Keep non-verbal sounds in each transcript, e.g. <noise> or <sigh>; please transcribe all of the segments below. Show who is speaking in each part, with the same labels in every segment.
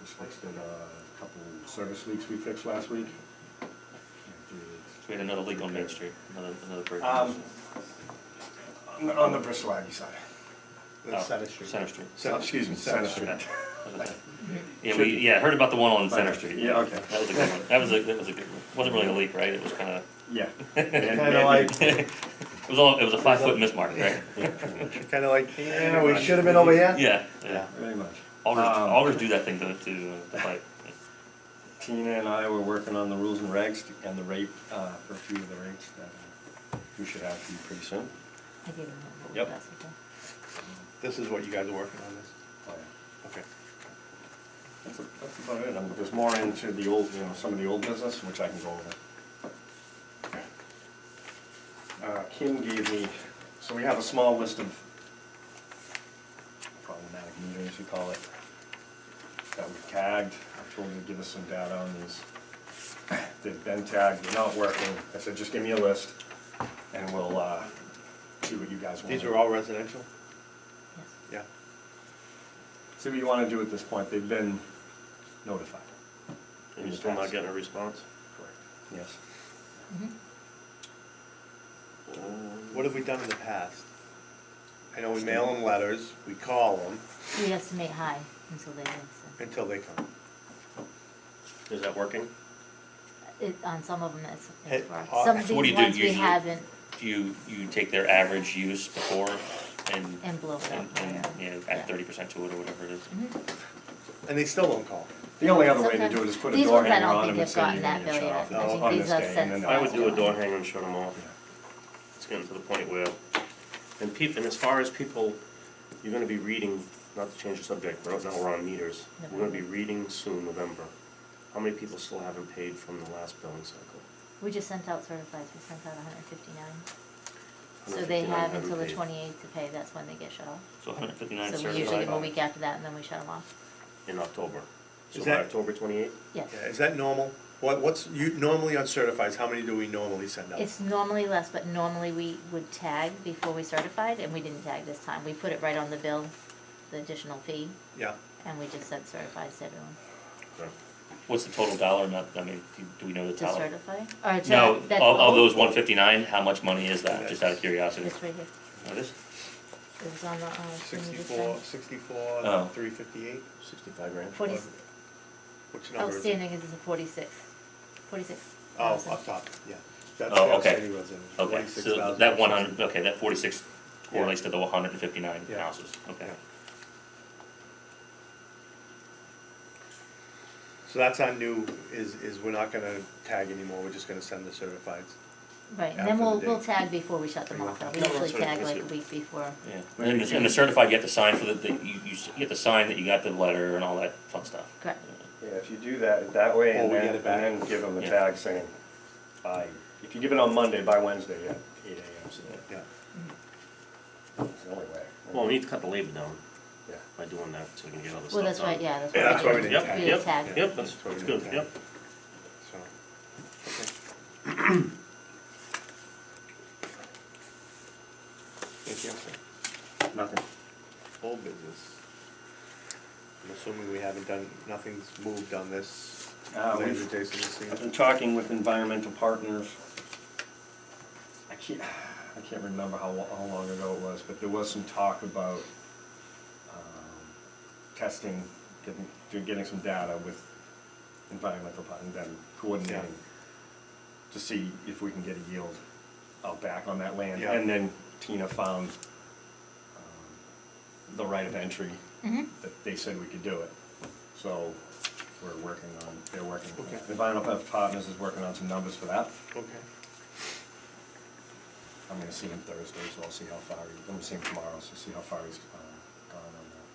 Speaker 1: Just fixed it, uh, a couple service leaks we fixed last week.
Speaker 2: So we had another leak on Main Street, another, another break. on Main
Speaker 1: Um,
Speaker 2: Street.
Speaker 1: on the- On the Bristolagi side.
Speaker 2: Oh,
Speaker 3: Center Street.
Speaker 2: Center Street.
Speaker 1: Center- Excuse me, Center Street.
Speaker 2: Okay. Yeah, we, yeah, heard about the one on Center Street.
Speaker 1: Yeah, okay.
Speaker 2: That was a good one, that was a, that was a good one, wasn't really a leak, right, it was kinda.
Speaker 1: <laughs>
Speaker 2: <laughs>
Speaker 1: Yeah.
Speaker 3: Kinda like-
Speaker 2: It was all, it was a five foot mismark,
Speaker 1: <laughs>
Speaker 2: right?
Speaker 3: Kinda like, yeah, we should have been over here.
Speaker 2: Yeah, yeah,
Speaker 1: Very much.
Speaker 2: augers,
Speaker 1: Um,
Speaker 2: augers do that thing to, to, uh, the pipe.
Speaker 1: Tina and I were working on the rules and regs to- and the rate, uh, for a few of the rates that we should have for you pretty soon.
Speaker 4: I gave him a
Speaker 1: Yep.
Speaker 4: little message.
Speaker 3: This is what you guys are working on this, okay.
Speaker 1: Oh, That's a- that's about it, I'm just more into the old, you know, some of the old business, which I can go over. Uh, Kim gave me, so we have a small list of problematic meters, you call it, that we've tagged, I told her to give us some data on these. They've been tagged, they're not working, I said, just give me a list, and we'll, uh, see what you guys want.
Speaker 3: These are all residential?
Speaker 4: Yes.
Speaker 3: Yeah.
Speaker 1: See what you wanna do at this point, they've been notified.
Speaker 5: And you're still not getting a response?
Speaker 1: Correct. Yes.
Speaker 4: Mm-hmm.
Speaker 3: What have we done in the past? I know we mail them letters, we call them
Speaker 4: You'd estimate high until they answer.
Speaker 3: until they come.
Speaker 5: Is that working?
Speaker 4: It, on some of them, it's,
Speaker 3: Hey,
Speaker 4: it's for,
Speaker 3: uh,
Speaker 4: some
Speaker 2: so
Speaker 4: of
Speaker 2: what do
Speaker 4: these
Speaker 2: you do
Speaker 4: ones we
Speaker 2: usually?
Speaker 4: haven't
Speaker 2: You, you take their average use before and.
Speaker 4: and blow it
Speaker 2: And,
Speaker 4: up.
Speaker 2: and,
Speaker 4: yeah.
Speaker 2: yeah, add thirty percent to it or whatever it is.
Speaker 4: Mhm.
Speaker 3: And they still don't call.
Speaker 1: The only other way to do it is put a
Speaker 4: These
Speaker 1: door
Speaker 4: ones I
Speaker 1: hanger
Speaker 4: don't
Speaker 1: on them
Speaker 4: think
Speaker 1: and
Speaker 4: they've
Speaker 1: say you're
Speaker 4: gotten that
Speaker 1: gonna shut
Speaker 4: bill
Speaker 1: off
Speaker 4: yet. I
Speaker 1: on
Speaker 4: think
Speaker 1: on
Speaker 4: these
Speaker 1: this
Speaker 4: are
Speaker 1: day, and
Speaker 4: sent
Speaker 1: then
Speaker 4: to
Speaker 1: they'll
Speaker 5: I would do a
Speaker 1: have to-
Speaker 5: door hanger and shut them off. It's getting to the point where, and peop, and as far as people, you're gonna be reading, not to change the subject, but now we're on meters. We're gonna be reading soon, November. How many people still haven't paid from the last billing cycle?
Speaker 4: We just sent out certifies, we sent out hundred fifty-nine. So they
Speaker 5: 159
Speaker 4: have
Speaker 5: haven't
Speaker 4: until the
Speaker 5: paid.
Speaker 4: twenty-eighth to pay, that's when they get shut off.
Speaker 2: So hundred fifty-nine
Speaker 4: So we usually give them a
Speaker 2: certified.
Speaker 4: week after that and then we shut them off.
Speaker 5: In October. So
Speaker 3: Is
Speaker 5: by
Speaker 3: that-
Speaker 5: October twenty-eighth?
Speaker 4: Yes.
Speaker 3: Yeah, is that normal? What, what's, you, normally on certifies, how many do we normally send out?
Speaker 4: It's normally less, but normally we would tag before we certified and we didn't tag this time. We put it right on the bill, the additional fee,
Speaker 3: Yeah,
Speaker 4: and we just sent certifies to everyone.
Speaker 2: What's the total dollar amount, I mean, do, do we know the
Speaker 4: To
Speaker 2: dollar?
Speaker 4: certify? Or to-
Speaker 2: No,
Speaker 4: that's
Speaker 2: of, of
Speaker 4: all?
Speaker 2: those one fifty-nine, how much money is that, just out of curiosity?
Speaker 4: It's right here.
Speaker 2: What is?
Speaker 4: It was on the, uh, thing you just
Speaker 3: sixty-four,
Speaker 4: signed.
Speaker 3: sixty-four,
Speaker 2: Oh.
Speaker 3: three fifty-eight,
Speaker 5: Sixty-five grand.
Speaker 4: Forty,
Speaker 3: which number is it?
Speaker 4: outstanding is a forty-six, forty-six.
Speaker 3: Oh,
Speaker 4: thousand.
Speaker 3: up top, yeah. That's
Speaker 2: Oh,
Speaker 3: the
Speaker 2: okay.
Speaker 3: outstanding residential,
Speaker 2: Okay,
Speaker 3: 46,000.
Speaker 2: so that one hundred, okay, that forty-six
Speaker 3: Yeah.
Speaker 2: correlates to the one hundred and fifty-nine
Speaker 3: Yeah.
Speaker 2: houses, okay.
Speaker 3: Yeah. So that's our new, is, is we're not gonna tag anymore, we're just gonna send the certifieds.
Speaker 4: Right, and
Speaker 3: after
Speaker 4: then we'll,
Speaker 3: the
Speaker 4: we'll
Speaker 3: date.
Speaker 4: tag before we shut them off, though. We
Speaker 5: No,
Speaker 4: usually
Speaker 5: that's right,
Speaker 4: tag
Speaker 5: that's
Speaker 4: like a
Speaker 5: it.
Speaker 4: week before.
Speaker 2: Yeah,
Speaker 1: Maybe
Speaker 2: and
Speaker 1: you
Speaker 2: the, and the
Speaker 1: can-
Speaker 2: certified, you have to sign for the, the, you, you s- you have to sign that you got the letter and all that fun stuff.
Speaker 4: Correct.
Speaker 1: Yeah, if you do that, that way,
Speaker 3: Or
Speaker 1: and
Speaker 3: we
Speaker 1: then, and
Speaker 3: get it back.
Speaker 1: then give them the
Speaker 2: Yeah.
Speaker 1: tag saying, by, if you give it on Monday, by Wednesday, at eight AM, so
Speaker 3: Yeah.
Speaker 1: that's the only way.
Speaker 5: Well, we need to cut the labor down
Speaker 1: Yeah.
Speaker 5: by doing that, so we can get all this
Speaker 4: Well,
Speaker 5: stuff done.
Speaker 4: that's right, yeah,
Speaker 3: Yeah,
Speaker 4: that's why we did
Speaker 3: that's why we
Speaker 4: we
Speaker 3: did
Speaker 4: did
Speaker 5: tag.
Speaker 4: tag.
Speaker 5: Yep, that's- that's good, yep.
Speaker 3: So, okay. Anything else, sir?
Speaker 1: Nothing.
Speaker 3: Old business. I'm assuming we haven't done, nothing's moved on this.
Speaker 1: Uh,
Speaker 3: Land
Speaker 1: we've-
Speaker 3: adjacent to the
Speaker 1: I've
Speaker 3: scene.
Speaker 1: been talking with environmental partners. I can't, I can't remember how, lo- how long ago it was, but there was some talk about, um, testing, getting, do- getting some data with environmental partners, then coordinating to see if we can get a yield out back on that land.
Speaker 3: Yeah.
Speaker 1: And then Tina found, um, the right of entry,
Speaker 4: Mhm.
Speaker 1: that they said we could do it. So, we're working on, they're working
Speaker 3: Okay.
Speaker 1: Environmental Health Partners is working on some numbers for that.
Speaker 3: Okay.
Speaker 1: I'm gonna see him Thursday, so I'll see how far, he- I'm gonna see him tomorrow, so see how far he's uh, gone on that.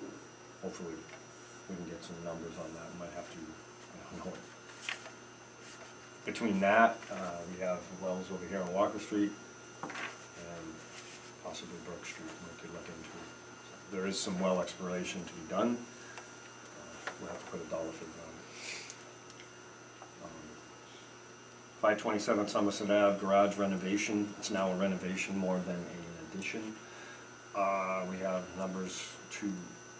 Speaker 1: And Hopefully, we can get some numbers on that, might have to, I don't know. Between that, uh, we have wells over here on Walker Street and possibly Brook Street, we could look into. There is some well exploration to be done. Uh, We'll have to put a dollar figure on it. Um, Five twenty-seven Somerset Ave garage renovation, it's now a renovation more than an addition. Uh, we have numbers to